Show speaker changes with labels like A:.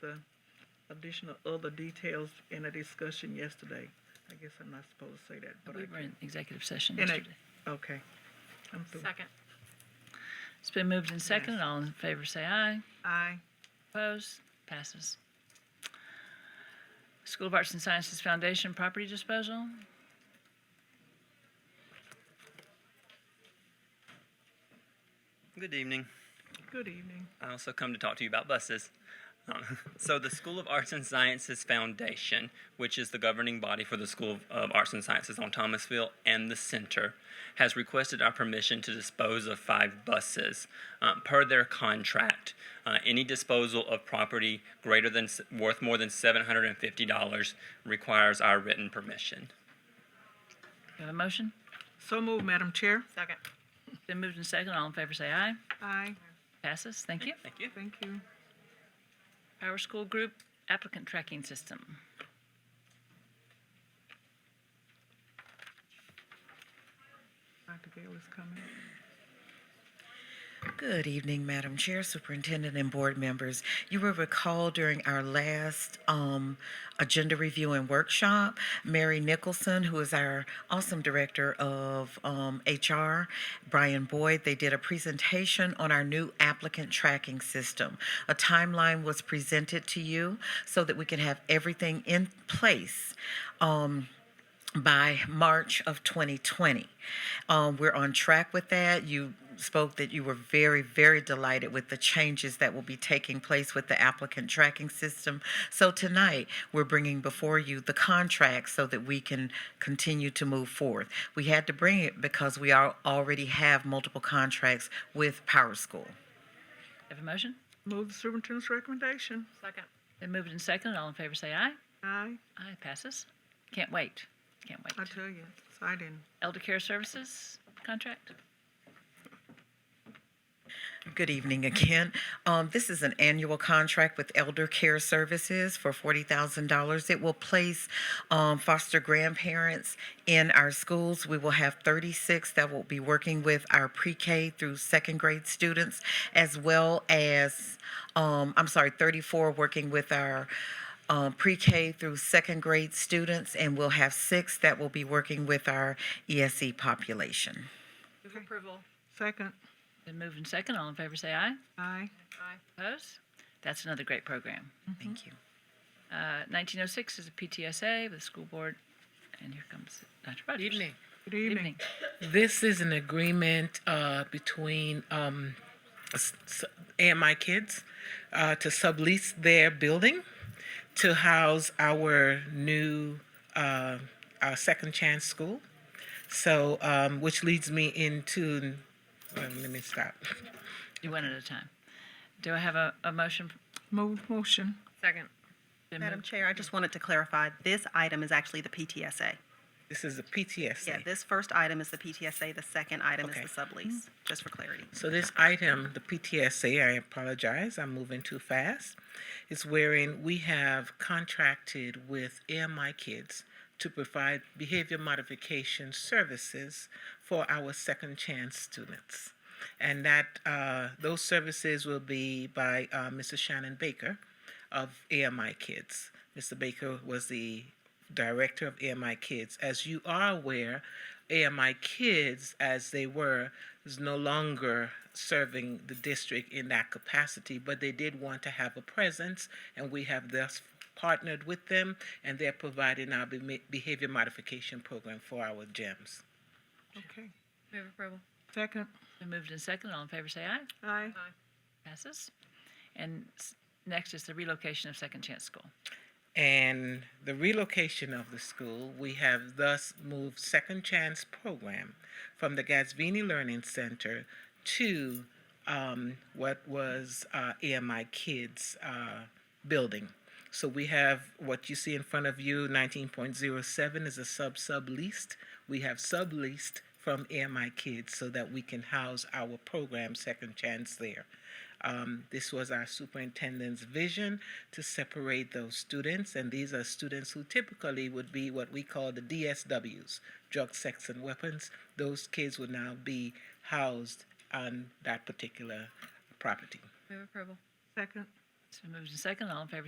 A: the additional other details in a discussion yesterday. I guess I'm not supposed to say that, but
B: We
A: I
B: were
A: did.
B: in executive session
A: In a-
B: yesterday.
A: Okay. I'm through.
C: Second.
B: It's been moved and seconded. All in favor say aye.
A: Aye.
B: Opposed? Passes. School of Arts and Sciences Foundation property disposal.
D: Good evening.
A: Good evening.
D: I also come to talk to you about buses. Um, so, the School of Arts and Sciences Foundation, which is the governing body for the School of, of Arts and Sciences on Thomasville and the center, has requested our permission to dispose of five buses um, per their contract. Uh, any disposal of property greater than s- worth more than $750 requires our written permission.
B: Do you have a motion?
A: So moved, Madam Chair.
C: Second.
B: It's been moved and seconded. All in favor say aye.
A: Aye.
B: Passes. Thank you.
D: Thank you.
A: Thank you.
B: Power School Group applicant tracking system.
A: Dr. Gale is coming.
E: Good evening, Madam Chair, Superintendent, and board members. You will recall during our last um, agenda review and workshop, Mary Nicholson, who is our awesome director of um, HR, Brian Boyd, they did a presentation on our new applicant tracking system. A timeline was presented to you so that we can have everything in place. Um, by March of 2020. Um, we're on track with that. You spoke that you were very, very delighted with the changes that will be taking place with the applicant tracking system. So tonight, we're bringing before you the contract so that we can continue to move forward. We had to bring it because we are, already have multiple contracts with Power School.
B: Have a motion?
A: Move the superintendent's recommendation.
C: Second.
B: Been moved and seconded. All in favor say aye.
A: Aye.
B: Aye. Passes. Can't wait. Can't
A: I
B: wait.
A: tell you, exciting.
B: Elder Care Services contract.
E: Good evening again. Um, this is an annual contract with Elder Care Services for $40,000. It will place um, foster grandparents in our schools. We will have 36 that will be working with our pre K through second grade students, as well as, um, I'm sorry, 34 working with our um, pre-K through second grade students, and we'll have six that will be working with our ESE population.
C: Move approval.
A: Second.
B: Been moved and seconded. All in favor say aye.
A: Aye.
C: Aye.
B: Opposed? That's another great program.
E: Thank you.
B: Uh, 1906 is a PTSA with the school board. And here comes Dr. Rogers.
F: Evening.
A: Good evening.
B: Evening.
F: This is an agreement uh, between um, s- s- and my kids uh, to sublease their building to house our new uh, our second chance school. So, um, which leads me into. um, let me stop.
B: Do one at a time. Do I have a, a motion?
A: Move motion.
C: Second.
B: Been
G: Madam
B: moved-
G: Chair, I just wanted to clarify, this item is actually the PTSA.
F: This is the PTSD.
G: Yeah, this first item is the PTSA, the second item is
F: Okay.
G: the sublease, just for clarity.
F: So this item, the PTSA, I apologize, I'm moving too fast, is wherein we have contracted with AMI Kids to provide behavior modification services for our second chance students. And that, uh, those services will be by, uh, Mrs. Shannon Baker of AMI Kids. Mr. Baker was the director of AMI Kids. As you are aware, AMI Kids, as they were, is no longer serving the district in that capacity, but they did want to have a presence, and we have thus partnered with them, and they're providing our be- behavior modification program for our gyms.
A: Okay.
C: Move approval.
A: Second.
B: Been moved and seconded. All in favor say aye.
A: Aye.
B: Passes. And s- next is the relocation of Second Chance School.
F: and the relocation of the school, we have thus moved Second Chance program from the Gatsvini Learning Center to um, what was uh, AMI Kids uh, building. So we have what you see in front of you, 19.07 is a sub subleased. We have subleased from AMI Kids so that we can house our program Second Chance there. Um, this was our superintendent's vision to separate those students, and these are students who typically would be what we call the DSWs, drug, sex, and weapons. Those kids would now be housed on that particular property.
C: Move approval.
A: Second.
B: So moved and seconded. All in favor